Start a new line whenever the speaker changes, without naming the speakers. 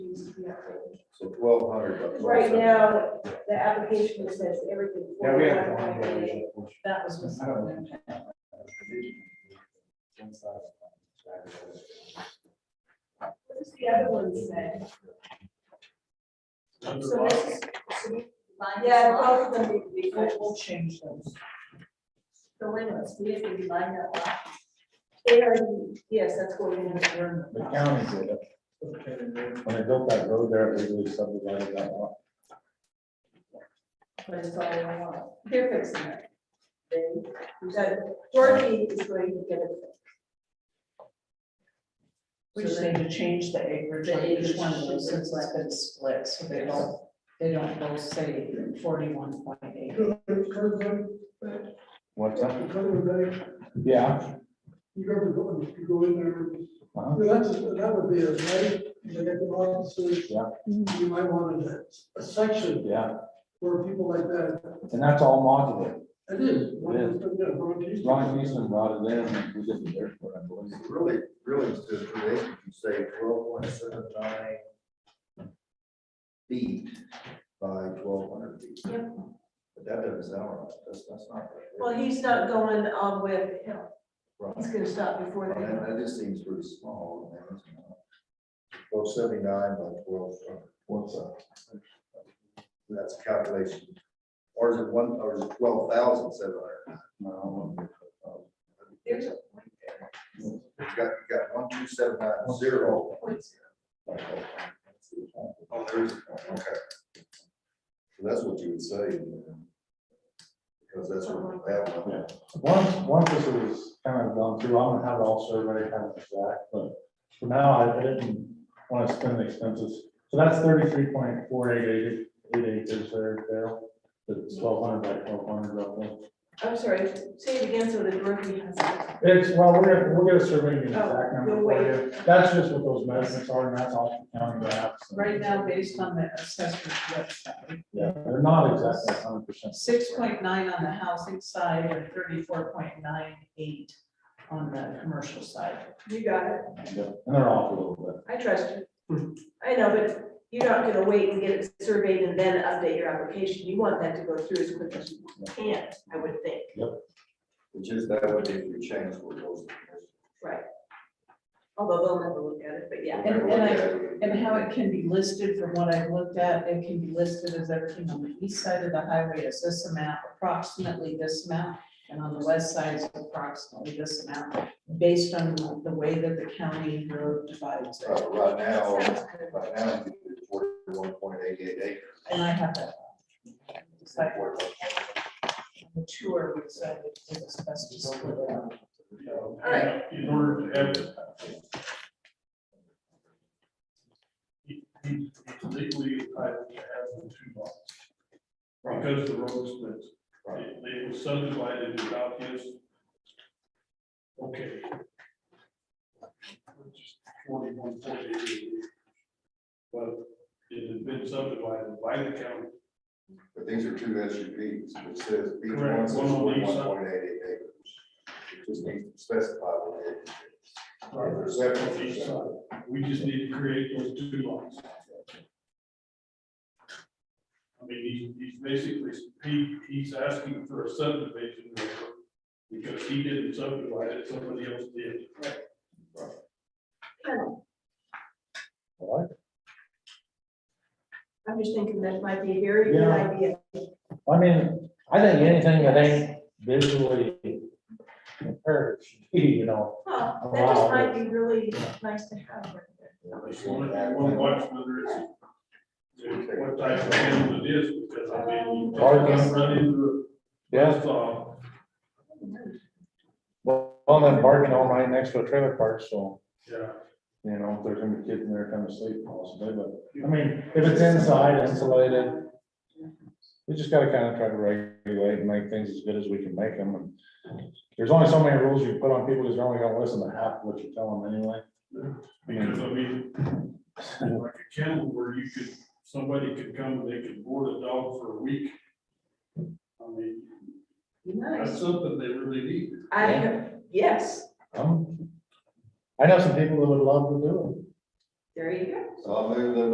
So twelve hundred bucks.
Right now, the application says everything.
Yeah, we have.
$4,198. That was just. What does the other one say? So this is, yeah, both of them need to be fixed. We'll change those.
So wait a minute, so we have to divide that lot.
They are, yes, that's what we're gonna learn.
The county did it. When I built that road there, it legally subdivided that lot.
But it's all I want. They're fixing it. They, we got, Dorothy is going to get it.
We just need to change the acreage on
The
each one of
acreage.
those, since it's been split, so they don't, they don't both say forty-one point eight.
What's that?
You
Yeah.
ever go, you go in there,
Uh-huh.
that's, that would be a right, you get the officers.
Yeah.
You might want a, a section
Yeah,
for people like that,
and that's all modular.
it is.
Ron Eastman brought it in, and we did the dirt for it, I believe.
Really, really, it's just create, you say twelve point seven nine feet by twelve hundred feet.
Yep.
But that doesn't sound right, that's, that's not. right.
Well, he's not going on with, him. he's
Right.
gonna stop before they.
That, that just seems pretty small. Twelve seventy-nine by twelve hundred.
What's that?
That's a calculation. Or is it one, or is it twelve thousand seven hundred?
No,
There's a
It's got, you got one, two, seven, nine, zero.
point.
Oh, there's, okay. So that's what you would say. um, Because that's what that one.
Yeah. Once, once this was kind of gone through, I'm gonna have it all surveyed, kind of exact, but for now, I I didn't want to spend the expenses. So that's thirty-three point four eight eight, eight acres there, there, the twelve hundred by twelve hundred roughly.
I'm sorry, say it again so that Dorothy has it.
It's, well, we're gonna, we're gonna survey the exact
Oh,
number
you'll
for you. That's just what those measurements are, and that's off the county maps. and-
Right now, based on the assessor's website,
Yeah, they're not exactly hundred percent.
six point nine on the housing side and thirty-four point nine eight on the commercial side.
You got it.
And they're off a little bit.
I trust you. I know, but you're not gonna wait and get it surveyed and then update your application. You want that to go through as quick as you can, I would think.
Which is that would be if we change what goes.
Although they'll never look at it, but yeah.
And- and I- And how it can be listed, from what I've looked at, it can be listed as everything on the east side of the highway is this amount, approximately this amount. And on the west side is approximately this amount, based on the way that the county road divides it.
Uh, Right now,
Sounds good.
right now, it's forty-one point eight eight acres.
And I have that. It's like, The tour, we said it's best to split it up.
All right,
In order to advertise. He, he's legally entitled to have the two lots. Because the road splits,
Right.
They- they were subdivided without his. Okay. Forty-one, forty-eight. But it had been subdivided by the county,
But these are two SUVs, which says each one
Correct,
says
one on each
forty-one
side.
point eight eight acres. It just needs to specify what it is. Or seven
on each side. we just need to create those two lots. I mean, he's, he's basically, he, he's asking for a subdivision waiver because he didn't subdivide it, somebody else did.
All
I'm just thinking that might be a very good
Yeah.
idea.
right. I mean, I think anything that ain't visually impaired, should be, you know,
Huh, That just
Wow.
might be really nice to have. right there.
If you want, if you want to watch whether it's what type of animal it is, because I mean, you don't run into a
yeah,
saw.
well, well, then barking all night next to a trailer park, so,
Yeah,
you know, if there's gonna be kids in there kind of sleep possibly, but, I mean, if it's inside, insulated, we just gotta kind of try to regulate and make things as good as we can make them. and There's only so many rules you put on people, because they're only gonna listen to half of what you tell them anyway.
because I mean, like a kennel where you could, somebody could come, and they could board a dog for a week. I mean, that's
Nice.
something they really need.
I, yes,
Um, I know some people that would love to do it.
there you go.
So I'll move the